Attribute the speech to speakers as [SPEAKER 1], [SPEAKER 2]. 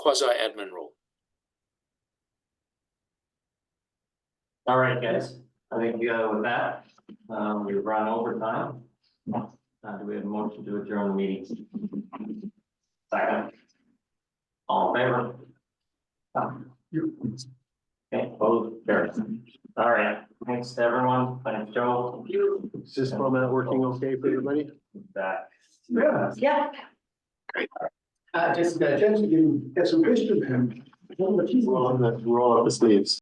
[SPEAKER 1] quasi-admin role.
[SPEAKER 2] All right, guys, I think uh, with that, um, we've run over time. Uh, do we have a motion to adjourn the meeting? Second. All in favor? Okay, both, carries. All right, thanks to everyone, thanks Joel.
[SPEAKER 3] Is this format working okay for everybody?
[SPEAKER 2] That.
[SPEAKER 4] Yeah,
[SPEAKER 5] Yeah.
[SPEAKER 4] Uh, I just, I just, you get some wisdom, him.
[SPEAKER 3] We're on the, we're all up the sleeves.